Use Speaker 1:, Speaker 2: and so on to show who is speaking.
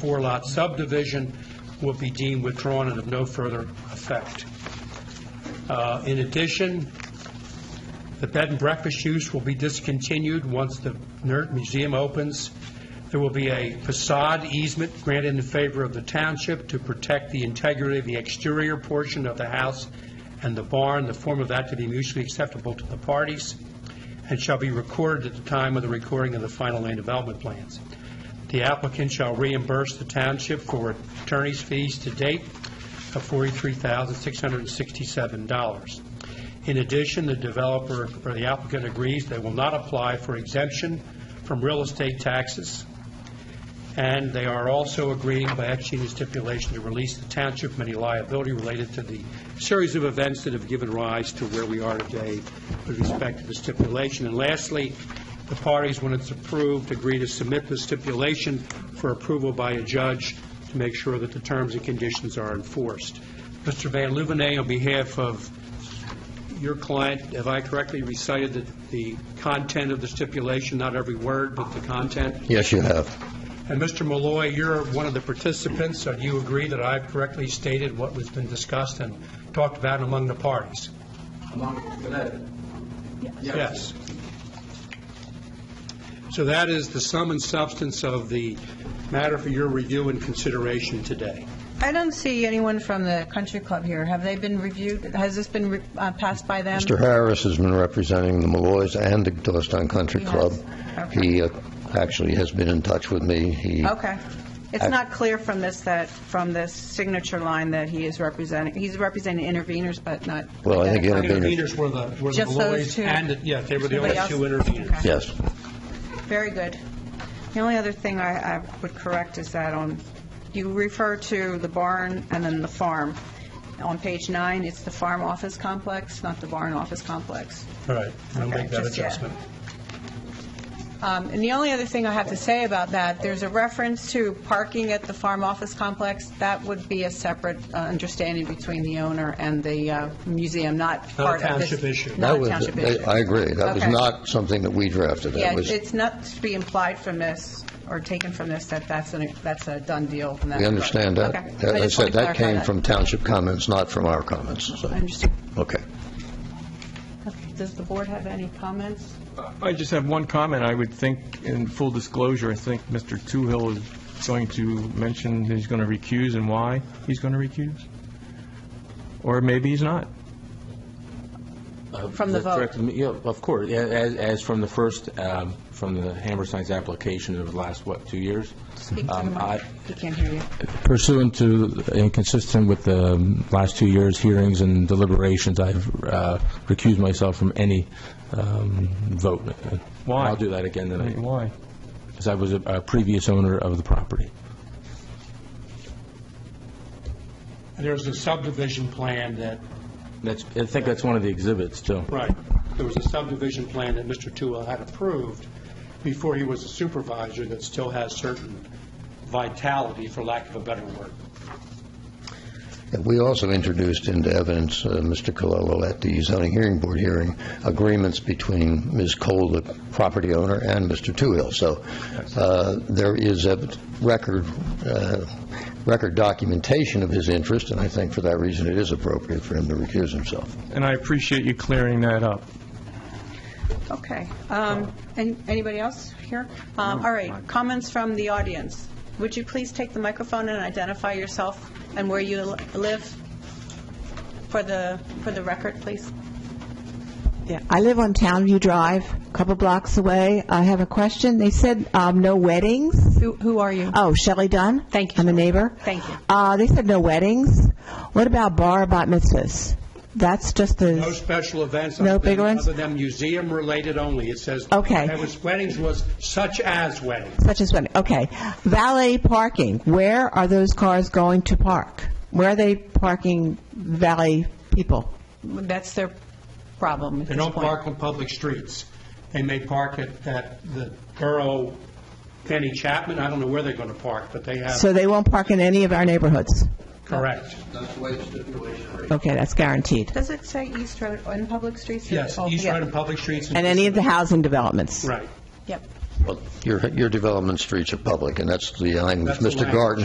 Speaker 1: four-lot subdivision will be deemed withdrawn and of no further effect. Uh, In addition, the bed and breakfast use will be discontinued once the Nerd Museum opens. There will be a facade easement granted in favor of the township to protect the integrity of the exterior portion of the house and the barn, the form of that to be mutually acceptable to the parties, and shall be recorded at the time of the recording of the final land development plans. The applicant shall reimburse the township for attorney's fees to date of $43,667. In addition, the developer or the applicant agrees they will not apply for exemption from real estate taxes, and they are also agreeing by executing stipulation to release the township from any liability related to the series of events that have given rise to where we are today with respect to the stipulation. And lastly, the parties, when it's approved, agree to submit the stipulation for approval by a judge to make sure that the terms and conditions are enforced. Mr. Van Louvenay, on behalf of your client, have I correctly recited the- the content of the stipulation, not every word, but the content?
Speaker 2: Yes, you have.
Speaker 1: And Mr. Malloy, you're one of the participants, so do you agree that I've correctly stated what has been discussed and talked about among the parties? Yes. So that is the sum and substance of the matter for your review and consideration today.
Speaker 3: I don't see anyone from the country club here. Have they been reviewed? Has this been re- uh, passed by them?
Speaker 2: Mr. Harris has been representing the Malloys and the Doylestown Country
Speaker 3: He has.
Speaker 2: Club.
Speaker 3: Okay.
Speaker 2: He uh, actually has been in touch with me. He
Speaker 3: Okay. It's not clear from this that, from this signature line that he is representing, he's representing interveners, but not...
Speaker 2: Well, I think
Speaker 3: identifying-
Speaker 2: interveners-
Speaker 1: Interveners were the were the
Speaker 3: Just those
Speaker 1: Malloys
Speaker 3: two?
Speaker 1: and, the- yeah, they were the only
Speaker 3: Nobody
Speaker 1: two
Speaker 3: else?
Speaker 1: interveners.
Speaker 3: Okay.
Speaker 2: Yes.
Speaker 3: Very good. The only other thing I, I would correct is that on, you refer to the barn and then the farm. On page nine, it's the farm office complex, not the barn office complex.
Speaker 1: All right, I'll
Speaker 3: Okay,
Speaker 1: make that
Speaker 3: just, yeah.
Speaker 1: adjustment.
Speaker 3: Um, And the only other thing I have to say about that, there's a reference to parking at the farm office complex. That would be a separate uh, understanding between the owner and the uh, museum, not
Speaker 1: a
Speaker 3: part of this.
Speaker 1: township issue.
Speaker 3: Not
Speaker 2: That
Speaker 3: a
Speaker 2: was.
Speaker 3: township issue.
Speaker 2: I agree. That was
Speaker 3: Okay.
Speaker 2: not something that we drafted. That
Speaker 3: Yeah,
Speaker 2: was-
Speaker 3: it's not to be implied from this, or taken from this, that that's, an- that's a done deal. in that
Speaker 2: We
Speaker 3: regard.
Speaker 2: understand
Speaker 3: Okay.
Speaker 2: that. As
Speaker 3: I
Speaker 2: I
Speaker 3: just wanted
Speaker 2: said,
Speaker 3: to
Speaker 2: that
Speaker 3: clarify
Speaker 2: came from township comments, not from our comments. so-
Speaker 3: I understand.
Speaker 2: Okay.
Speaker 3: Okay. Does the board have any comments?
Speaker 4: I just have one comment. I would think, in full disclosure, I think Mr. Toohill is going to mention that he's going to recuse and why he's going to recuse. Or maybe he's not.
Speaker 3: From the
Speaker 5: That
Speaker 3: vote?
Speaker 5: Uh, correct? Yeah, of course, Yeah, as, as from the first, um, from the Hammerstein's application over the last, what, two years?
Speaker 3: Speak to the
Speaker 5: Um, I-
Speaker 3: mic. He can't hear you.
Speaker 5: Pursuant to, and consistent with the um, last two years' hearings and deliberations, I've uh, recused myself from any um, vote.
Speaker 4: Why?
Speaker 5: I'll do that again tonight,
Speaker 4: Why?
Speaker 5: because I was a- a previous owner of the property.
Speaker 1: There's a subdivision plan that,
Speaker 5: That's, I think that's one of the exhibits, too.
Speaker 1: right, there was a subdivision plan that Mr. Tua had approved before he was a supervisor that still has certain vitality, for lack of a better word.
Speaker 2: And We also introduced into evidence, uh, Mr. Cololo, at the zoning hearing board hearing, agreements between Ms. Cole, the property owner, and Mr. Toohill. So uh, there is a record, uh, record documentation of his interest, and I think for that reason, it is appropriate for him to recuse himself.
Speaker 4: And I appreciate you clearing that up.
Speaker 3: Okay. Um, an- Anybody else here? Um, All right, comments from the audience. Would you please take the microphone and identify yourself and where you li- live for the, for the record, please?
Speaker 6: Yeah, I live on Townview Drive, a couple blocks away. I have a question. They said um, no weddings.
Speaker 3: Who who are you?
Speaker 6: Oh, Shelley Dunn?
Speaker 3: Thank you.
Speaker 6: I'm a neighbor.
Speaker 3: Thank you.
Speaker 6: Uh, They said no weddings. What about bar bat mitzvahs? That's just a...
Speaker 1: No special events.
Speaker 6: No
Speaker 1: other than-
Speaker 6: big ones?
Speaker 1: Other than museum-related only. It says.
Speaker 6: Okay.
Speaker 1: That was weddings was such as weddings.
Speaker 6: Such as when, okay. Valet parking, where are those cars going to park? Where are they parking valet people?
Speaker 3: That's their problem at
Speaker 1: They
Speaker 3: this
Speaker 1: don't
Speaker 3: point.
Speaker 1: park on public streets. They may park at, at the borough, Penny Chapman, I don't know where they're going to park, but they have,
Speaker 6: So they won't park in any of our neighborhoods?
Speaker 1: correct.
Speaker 6: Okay, that's guaranteed.
Speaker 3: Does it say East Road on public streets?
Speaker 1: Yes,
Speaker 3: Oh,
Speaker 1: East
Speaker 3: yeah.
Speaker 1: Road and public streets.
Speaker 6: And any of the housing developments?
Speaker 1: Right.
Speaker 3: Yep.
Speaker 2: Well, Your your development streets are public, and that's the, I'm with
Speaker 1: the
Speaker 2: Mr.
Speaker 1: language.
Speaker 2: Garden.